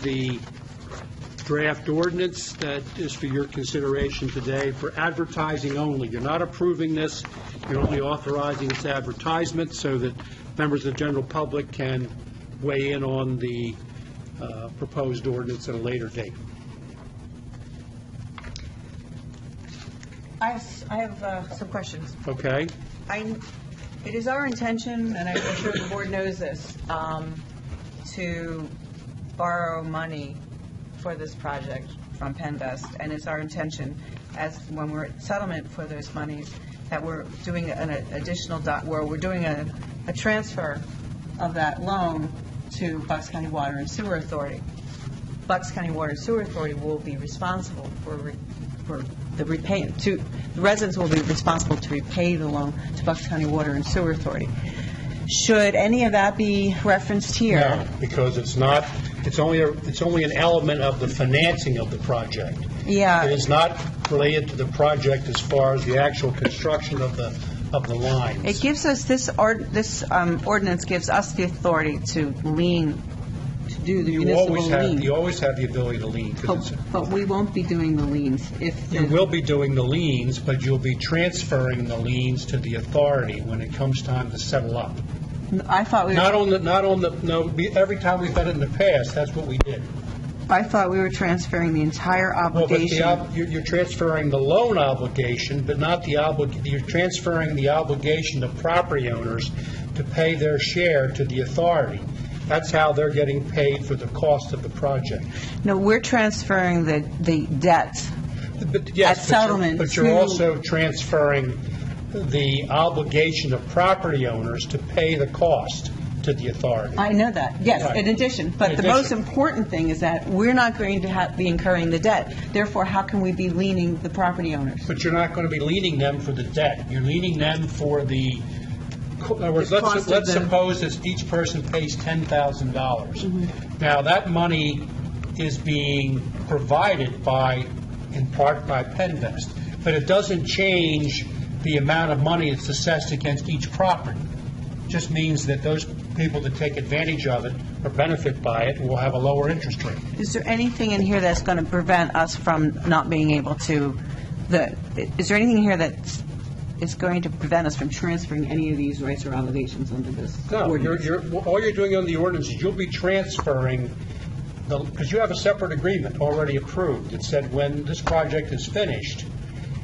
the draft ordinance that is for your consideration today for advertising only. You're not approving this, you're only authorizing its advertisement so that members of the general public can weigh in on the uh, proposed ordinance at a later date. I have, s- I have uh, some questions. Okay? I, it is our intention, and I'm sure the board knows this, um, to borrow money for this project from Penvest, and it's our intention, as when we're at settlement for those monies, that we're doing an additional, dot- where we're doing a, a transfer of that loan to Bucks County Water and Sewer Authority. Bucks County Water and Sewer Authority will be responsible for, re- for the repay, to, the residents will be responsible to repay the loan to Bucks County Water and Sewer Authority. Should any of that be referenced here? No, because it's not, it's only, a- it's only an element of the financing of the project. Yeah. It is not related to the project as far as the actual construction of the, of the It lines. gives us, this ord, this um, ordinance gives us the authority to lean, to do the You municipal always have, you lien. always have the ability to lien, 'cause But it's- but we won't be doing the liens if, you the- will be doing the liens, but you'll be transferring the liens to the authority when it comes time to settle up. I thought we, Not were- on the, not on the, no, be- every time we've done it in the past, that's what we did. I thought we were transferring the entire Well, but the, obligation. ob- you're you're transferring the loan obligation, but not the oblig, you're transferring the obligation to property owners to pay their share to the authority. That's how they're getting paid for the cost of the project. No, we're transferring the, the debt. But yes, At but you're- settlement But you're to- also transferring the obligation of property owners to pay the cost to the authority. I know that, yes, Right. in addition. But In the most addition. important thing is that we're not going to have, be incurring the debt. Therefore, how can we be leaning the property owners? But you're not going to be leaning them for the debt. You're leaning them for the, in other words, The cost let's, of let's the- suppose that each person pays Mm-hmm. $10,000. Now, that money is being provided by, in part by Penvest, but it doesn't change the amount of money that's assessed against each property. Just means that those people that take advantage of it or benefit by it will have a lower interest rate. Is there anything in here that's going to prevent us from not being able to, the, is there anything here that is going to prevent us from transferring any of these rights or obligations under this No, you're, ordinance? you're, well, all you're doing on the ordinance is you'll be transferring, because you have a separate agreement already approved that said when this project is finished,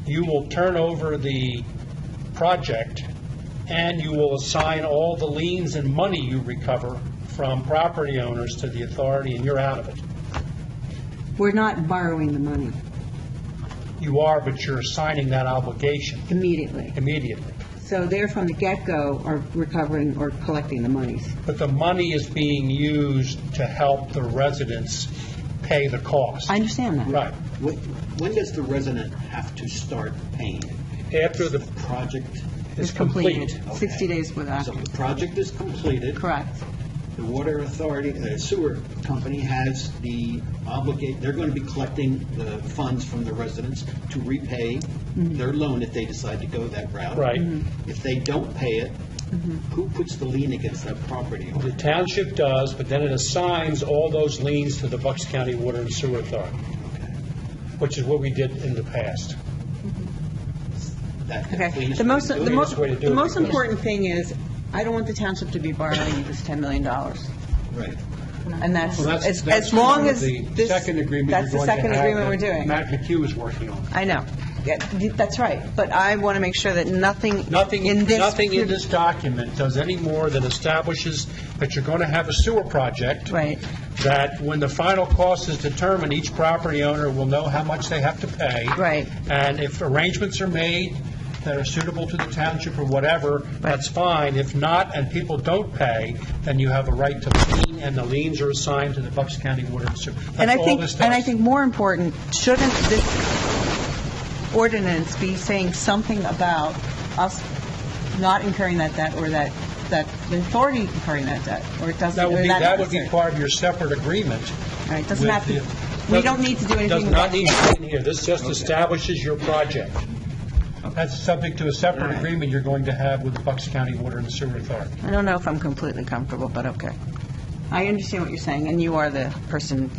you will turn over the project and you will assign all the liens and money you recover from property owners to the authority and you're out of it. We're not borrowing the money You are, but you're assigning that obligation immediately. immediately. So they're from the get-go are recovering or collecting the monies. But the money is being used to help the residents pay the cost. I understand that. Right. When when does the resident have to start paying? After the Project, is It's complete. completed. 60 days with that. so the project is completed. Correct. The water authority, the sewer company has the obligate, they're going to be collecting the funds from the residents to repay Mm-hmm. their loan if they decide to go that route. Right. Mhm. If they don't pay it, Mm-hmm. who puts the lien against that property owner? The township does, but then it assigns all those liens to the Bucks County Water and Sewer Authority, which is what we did in the past. That Okay. cleanest The way to most, do it. the most, way to do the it most because- important thing is, I don't want the township to be borrowing this $10 million. Right. And that's, Well, that's- as, that's as one long of as the this... second agreement you're That's the going to second have agreement that we're doing. Matt McHugh is working on. I know. Yeah, th- That's right, but I want to make sure that nothing Nothing, in this... nothing in this document does any more than establishes that you're going to have a sewer project. Right. That when the final cost is determined, each property owner will know how much they have to pay. Right. And if arrangements are made that are suitable to the township or whatever, that's fine. If not, and people don't pay, then you have a right to lien, and the liens are assigned to the Bucks County Water and Sewer. And I That's all think, this and I does. think more important, shouldn't this ordinance be saying something about us not incurring that debt or that, that the authority incurring that debt? Or it doesn't, That or would be, that... that would be part of your separate agreement. All right, doesn't with have to, the- we don't need to do anything... Does not about need to be in here. This just establishes your project. That's subject to a separate agreement you're going to have with the Bucks County Water and Sewer Authority. I don't know if I'm completely comfortable, but okay. I understand what you're saying, and you are the person